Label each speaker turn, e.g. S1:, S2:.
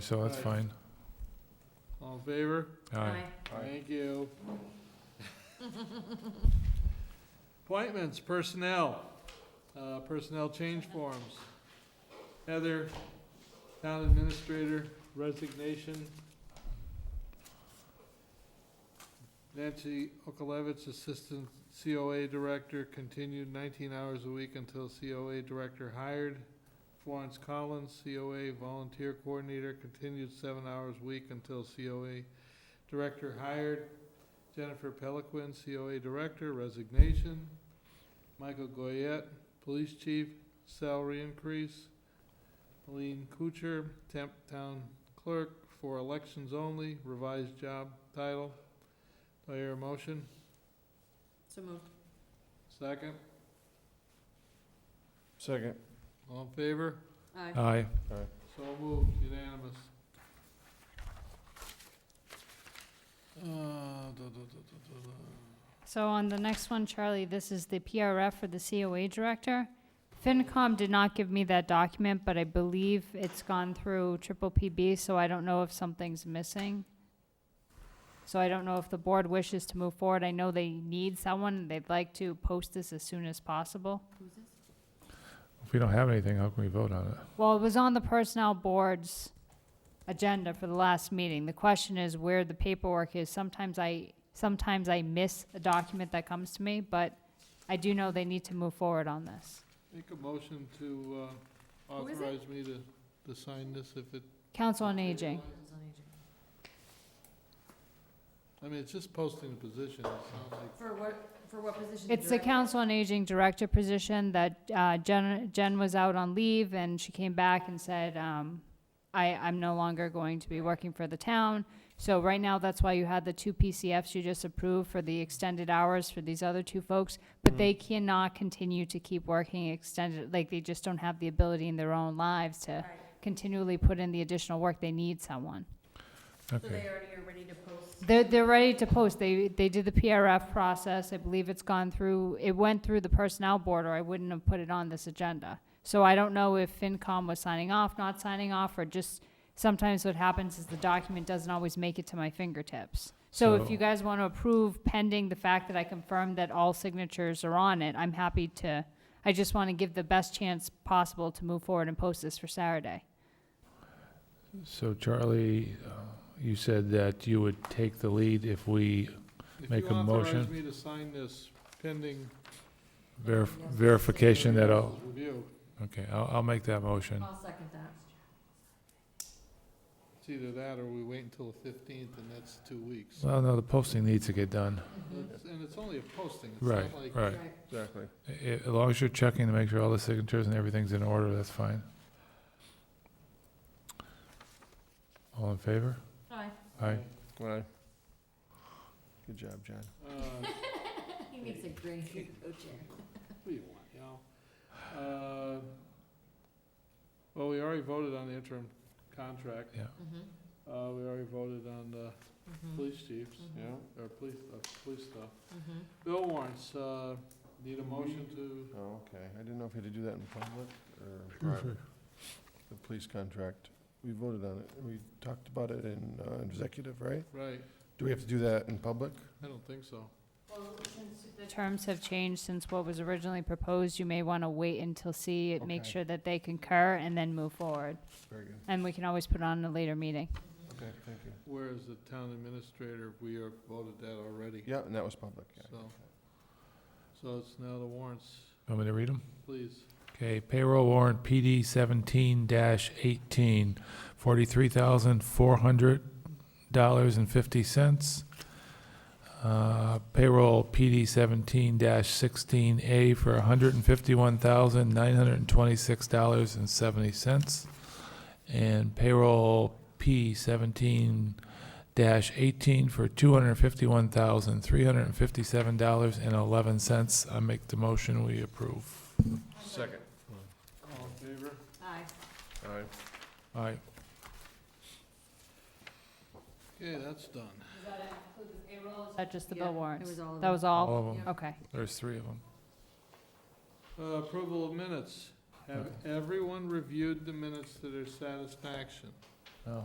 S1: so that's fine.
S2: All in favor?
S1: Aye.
S2: Thank you. Appointments, personnel, uh, personnel change forms. Heather, town administrator, resignation. Nancy Okalewicz, assistant COA director, continued nineteen hours a week until COA director hired. Florence Collins, COA volunteer coordinator, continued seven hours a week until COA Director hired Jennifer Peliquin, COA Director, resignation. Michael Goyette, Police Chief, salary increase. Aline Kuchar, Temp Town Clerk, for elections only, revised job title. Do I hear a motion?
S3: So moved.
S2: Second?
S4: Second.
S2: All in favor?
S3: Aye.
S1: Aye.
S2: So moved, unanimous. Uh, duh, duh, duh, duh, duh, duh.
S5: So on the next one, Charlie, this is the PRF for the COA director. FinCom did not give me that document, but I believe it's gone through triple PB, so I don't know if something's missing. So I don't know if the board wishes to move forward. I know they need someone. They'd like to post this as soon as possible.
S3: Who's this?
S1: If we don't have anything, how can we vote on it?
S5: Well, it was on the personnel board's agenda for the last meeting. The question is where the paperwork is. Sometimes I, sometimes I miss a document that comes to me, but I do know they need to move forward on this.
S2: Make a motion to uh,
S3: Who is it?
S2: authorize me to, to sign this if it,
S5: Council on Aging.
S3: Who's on aging?
S2: I mean, it's just posting a position, it sounds like.
S3: For what, for what position?
S5: It's the
S3: Director?
S5: Council on Aging Director position that uh, Jen, Jen was out on leave and she came back and said, um, I, I'm no longer going to be working for the town. So right now, that's why you had the two PCFs you just approved for the extended hours for these other two folks. But they cannot continue to keep working extended, like they just don't have the ability in their own lives to
S3: Right.
S5: continually put in the additional work. They need someone.
S3: So they
S1: Okay,
S3: already are ready to post?
S5: They're, they're ready to post. They, they did the PRF process. I believe it's gone through, it went through the personnel board or I wouldn't have put it on this agenda. So I don't know if FinCom was signing off, not signing off, or just, sometimes what happens is the document doesn't always make it to my fingertips. So if
S1: So-
S5: you guys want to approve pending the fact that I confirmed that all signatures are on it, I'm happy to, I just want to give the best chance possible to move forward and post this for Saturday.
S1: so Charlie, uh, you said that you would take the lead if we Make a
S2: If you authorize
S1: motion.
S2: me to sign this pending
S1: verif- verification that all,
S2: review,
S1: okay, I'll, I'll make that motion.
S3: I'll second that. Mm-hmm.
S2: it's either that or we wait until the fifteenth and that's two weeks.
S1: Well, no, the posting needs to get done.
S2: It's- And it's only a posting, it's
S1: Right,
S2: not like.
S1: right.
S4: Exactly.
S1: I- i- As long as you're checking to make sure all the signatures and everything's in order, that's fine. All in favor?
S3: Aye.
S1: Aye.
S4: Aye. Good job, John.
S2: Uh,
S3: He makes a great co-chair.
S2: What do you want, you know? Uh, Well, we already voted on the interim contract,
S1: Yeah.
S5: Mm-hmm.
S2: uh, we already voted on the
S3: Mm-hmm.
S2: police chiefs,
S4: Yeah.
S2: or police, uh, police stuff.
S3: Mm-hmm.
S2: Bill warrants, uh, need a motion to,
S4: Oh, okay. I didn't know if we had to do that in public or private. The police contract. We voted on it. We talked about it in uh, executive, right?
S2: right,
S4: Do we have to do that in public?
S2: I don't think so.
S5: Well, since the terms have changed since what was originally proposed, you may want to wait until see, it, make
S4: Okay.
S5: sure that they concur, and then move forward.
S4: Very good.
S5: And we can always put it on in a later meeting.
S4: Okay, thank you.
S2: Whereas the town administrator, we are voted that already,
S4: Yeah, and that was public. yeah.
S2: so. So it's now the warrants,
S1: Want me to read them?
S2: please.
S1: Okay, payroll warrant PD seventeen dash eighteen, forty-three thousand four hundred dollars and fifty cents. Uh, payroll PD seventeen dash sixteen A for hundred and fifty-one thousand nine hundred and twenty-six dollars and seventy cents. And payroll P seventeen dash eighteen for two hundred and fifty-one thousand three hundred and fifty-seven dollars and eleven cents. I make the motion, we approve.
S4: Second.
S2: All in favor?
S3: Aye.
S4: All right.
S1: All right,
S2: Okay, that's done.
S5: Is that just the
S3: Yeah,
S5: bill
S3: It
S5: warrants?
S3: was all of
S5: That
S3: them.
S5: was all?
S1: All of them.
S3: Yeah.
S5: Okay.
S1: There's three of them.
S2: Uh, Approval of minutes. Have everyone reviewed the minutes to their satisfaction?